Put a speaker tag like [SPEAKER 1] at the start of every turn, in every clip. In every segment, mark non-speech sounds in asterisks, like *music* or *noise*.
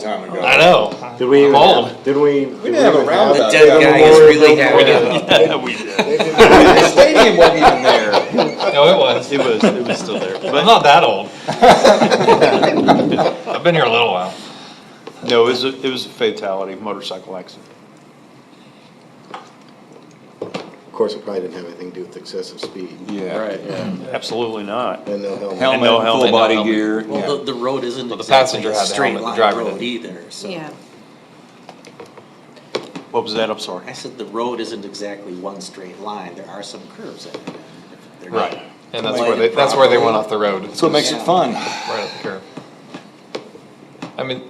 [SPEAKER 1] time ago.
[SPEAKER 2] I know.
[SPEAKER 3] Did we even
[SPEAKER 2] Old.
[SPEAKER 3] have, did we?
[SPEAKER 1] We didn't have a roundup.
[SPEAKER 4] dead
[SPEAKER 1] Yeah,
[SPEAKER 4] guy
[SPEAKER 1] the
[SPEAKER 4] is
[SPEAKER 1] Warriors
[SPEAKER 4] really
[SPEAKER 1] don't
[SPEAKER 4] happy.
[SPEAKER 5] *laughs*
[SPEAKER 1] have it.
[SPEAKER 2] Yeah, we did.
[SPEAKER 1] *laughs*
[SPEAKER 4] *laughs*
[SPEAKER 1] The stadium wasn't even there.
[SPEAKER 2] No, it was.
[SPEAKER 5] It was, it was still there.
[SPEAKER 2] I'm not that *laughs* old. I've been here a little while.
[SPEAKER 5] No, it was, a- it was a fatality, motorcycle accident.
[SPEAKER 3] Of course, it probably didn't have anything to do with excessive speed
[SPEAKER 1] Yeah.
[SPEAKER 2] Mm.
[SPEAKER 5] Absolutely not.
[SPEAKER 3] and no helmet.
[SPEAKER 1] Helmet,
[SPEAKER 5] no helmet, no
[SPEAKER 1] full body
[SPEAKER 5] helmet.
[SPEAKER 1] gear.
[SPEAKER 4] Well,
[SPEAKER 1] Yeah.
[SPEAKER 4] the, the road isn't
[SPEAKER 2] Well, the
[SPEAKER 4] exactly
[SPEAKER 2] passenger
[SPEAKER 4] a
[SPEAKER 2] had the
[SPEAKER 4] straight
[SPEAKER 2] helmet, the
[SPEAKER 4] line
[SPEAKER 2] driver
[SPEAKER 4] road
[SPEAKER 2] didn't.
[SPEAKER 4] either, so.
[SPEAKER 6] Yeah,
[SPEAKER 5] What was that? I'm
[SPEAKER 4] I
[SPEAKER 5] sorry.
[SPEAKER 4] said the road isn't exactly one straight line, there are some curves in it. They're not-
[SPEAKER 2] Right. And that's where they, that's where they went off the road.
[SPEAKER 1] That's what makes it fun.
[SPEAKER 2] Right up the curb. I mean,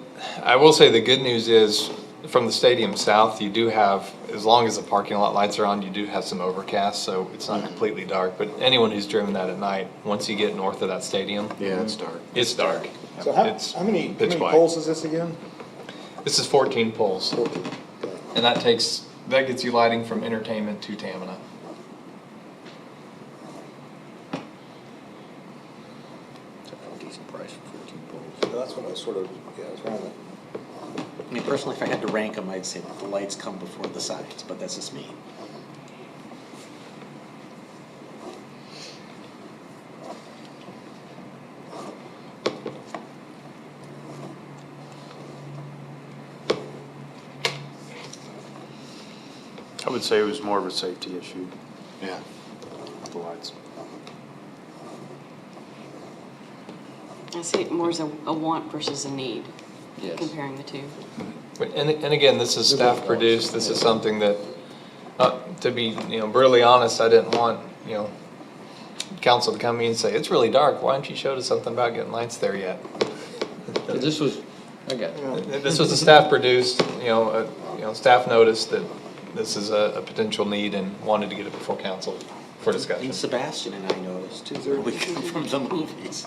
[SPEAKER 2] I will say the good news is, from the stadium south, you do have, as long as the parking lot lights are on, you do have some overcast, so it's not completely dark, but anyone who's driven that at night, once you get north of that stadium,
[SPEAKER 3] Yeah, it's dark.
[SPEAKER 2] it's dark.
[SPEAKER 1] So how,
[SPEAKER 2] It's
[SPEAKER 1] how many, how
[SPEAKER 2] pitch
[SPEAKER 1] many
[SPEAKER 2] black.
[SPEAKER 1] poles is this again?
[SPEAKER 2] This is fourteen poles, and that takes, that gets you lighting from entertainment to Tamina.
[SPEAKER 1] So That's what I sort of, yeah, it's around that.
[SPEAKER 4] I mean, personally, if I had to rank them, I'd say that the lights come before the signs, but that's just me.
[SPEAKER 5] I would say it was more of a safety issue,
[SPEAKER 3] Yeah.
[SPEAKER 5] the lights.
[SPEAKER 6] I see it more as a, a want versus a need,
[SPEAKER 4] Yes.
[SPEAKER 6] comparing the two.
[SPEAKER 2] But- And, and again, this is staff produced, this is something that, uh, to be, you know, brutally honest, I didn't want, you know, council to come in and say, it's really dark, why haven't you showed us something about getting lights there yet?
[SPEAKER 7] This was, I got it.
[SPEAKER 2] This was a staff produced, you know, uh, you know, staff noticed that this is a, a potential need and wanted to get it before council for discussion.
[SPEAKER 4] And Sebastian and I noticed too, when we come from the movies.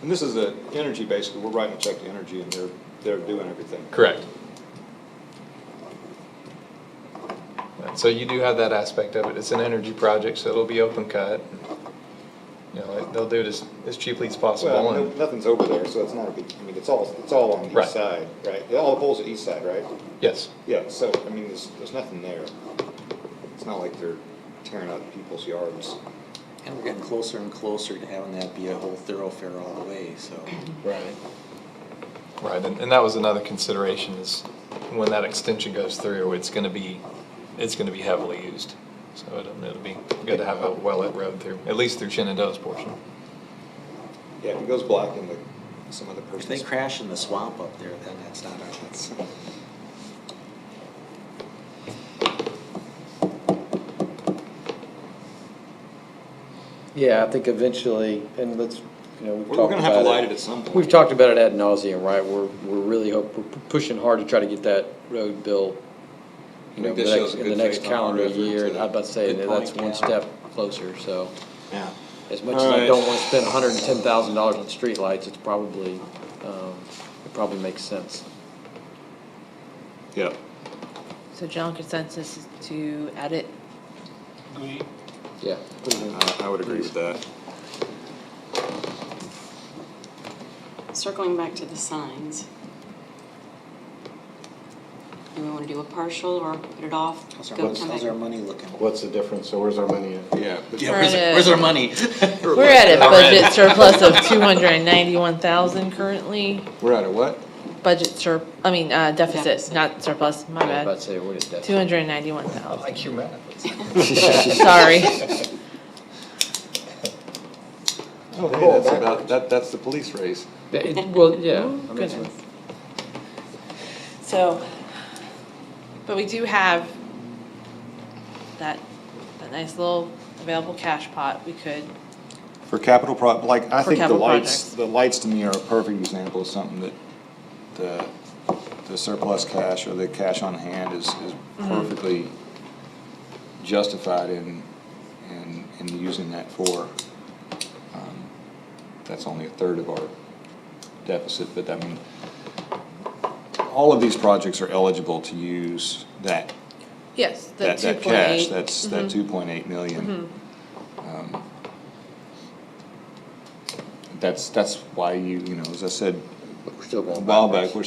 [SPEAKER 1] And this is the energy, basically, we're writing a check to energy and they're, they're doing everything.
[SPEAKER 2] Correct. And So you do have that aspect of it. It's an energy project, so it'll be open cut. You know, it- they'll do it as, as cheaply as
[SPEAKER 1] Well,
[SPEAKER 2] possible
[SPEAKER 1] no-
[SPEAKER 2] and,
[SPEAKER 1] nothing's over there, so it's not a big, I mean, it's all, it's all on the
[SPEAKER 2] Right.
[SPEAKER 1] east side, right? All the poles are east side, right?
[SPEAKER 2] yes.
[SPEAKER 1] Yeah, so, I mean, there's, there's nothing there. It's not like they're tearing out people's yards.
[SPEAKER 4] And we're getting closer and closer to having that be a whole thoroughfare all the way, so.
[SPEAKER 3] Right.
[SPEAKER 2] Right, and, and that was another consideration is when that extension goes through, it's gonna be, it's gonna be heavily used. So it'll, it'll be good to have a well-lit road through, at least through Shenandoah's portion.
[SPEAKER 1] Yeah, if it goes black into some other
[SPEAKER 4] If they
[SPEAKER 1] person's.
[SPEAKER 4] crash in the swamp up there, then that's not our, that's.
[SPEAKER 7] Yeah, I think eventually, and let's, you know, we've
[SPEAKER 1] We're
[SPEAKER 7] talked
[SPEAKER 1] gonna have to
[SPEAKER 7] about
[SPEAKER 1] light
[SPEAKER 7] it.
[SPEAKER 1] it at some point.
[SPEAKER 7] We've talked about it ad nauseum, right? We're, we're really hope, we're pushing hard to try to get that road built, you
[SPEAKER 1] I
[SPEAKER 7] know,
[SPEAKER 1] think
[SPEAKER 7] the
[SPEAKER 1] that shows
[SPEAKER 7] next,
[SPEAKER 1] a
[SPEAKER 7] in the
[SPEAKER 1] good
[SPEAKER 7] next
[SPEAKER 1] faith on our
[SPEAKER 7] calendar
[SPEAKER 1] effort
[SPEAKER 7] year.
[SPEAKER 1] to-
[SPEAKER 7] And I'm about to say,
[SPEAKER 4] Good
[SPEAKER 7] that that's
[SPEAKER 4] point,
[SPEAKER 7] one
[SPEAKER 4] yeah.
[SPEAKER 7] step closer, so.
[SPEAKER 3] Yeah.
[SPEAKER 7] As much as I don't wanna spend hundred and ten thousand dollars on streetlights, it's probably, um, it probably makes sense.
[SPEAKER 5] Yeah.
[SPEAKER 8] So general consensus is to add it
[SPEAKER 7] Yeah.
[SPEAKER 1] Uh, I, I would agree with that.
[SPEAKER 6] Circling back to the signs. Do we wanna do a partial or put it off?
[SPEAKER 4] How's our,
[SPEAKER 6] Go
[SPEAKER 4] mon-
[SPEAKER 6] come back?
[SPEAKER 4] how's our money looking?
[SPEAKER 3] What's the difference? So where's our money at?
[SPEAKER 1] Yeah.
[SPEAKER 4] Yeah,
[SPEAKER 8] We're
[SPEAKER 4] where's,
[SPEAKER 8] at a-
[SPEAKER 4] where's our money? *laughs*
[SPEAKER 8] We're at a budget surplus of two hundred and ninety-one thousand currently,
[SPEAKER 1] We're at a what?
[SPEAKER 8] budget sur, I mean, uh, deficit,
[SPEAKER 6] Deficit.
[SPEAKER 8] not surplus, my
[SPEAKER 7] I was about
[SPEAKER 8] bad.
[SPEAKER 7] to say, what is that?
[SPEAKER 8] Two hundred and ninety-one thousand,
[SPEAKER 2] like your math.
[SPEAKER 8] *laughs* sorry.
[SPEAKER 1] Oh, hey, that's about, that, that's the police race.
[SPEAKER 7] It- Well, yeah. I mean, it's-
[SPEAKER 8] Goodness. So, but we do have that, that nice little available cash pot we could,
[SPEAKER 1] For capital pro, like, I think
[SPEAKER 8] For
[SPEAKER 1] the
[SPEAKER 8] capital
[SPEAKER 1] lights,
[SPEAKER 8] projects.
[SPEAKER 1] the lights to me are a perfect example of something that the, the surplus cash or the cash on hand is, is
[SPEAKER 8] Mm-hmm.
[SPEAKER 1] perfectly justified in, in, in using that for. Um, That's only a third of our deficit, but I mean, all of these projects are eligible to use that,
[SPEAKER 8] yes, the
[SPEAKER 1] that,
[SPEAKER 8] two
[SPEAKER 1] that
[SPEAKER 8] point
[SPEAKER 1] cash,
[SPEAKER 8] eight. Mm-hmm.
[SPEAKER 1] that's, that two point eight million. Um, That's, that's why you, you know, as I said
[SPEAKER 7] We're still
[SPEAKER 1] a
[SPEAKER 7] going
[SPEAKER 1] while
[SPEAKER 7] backwards.
[SPEAKER 1] back, we're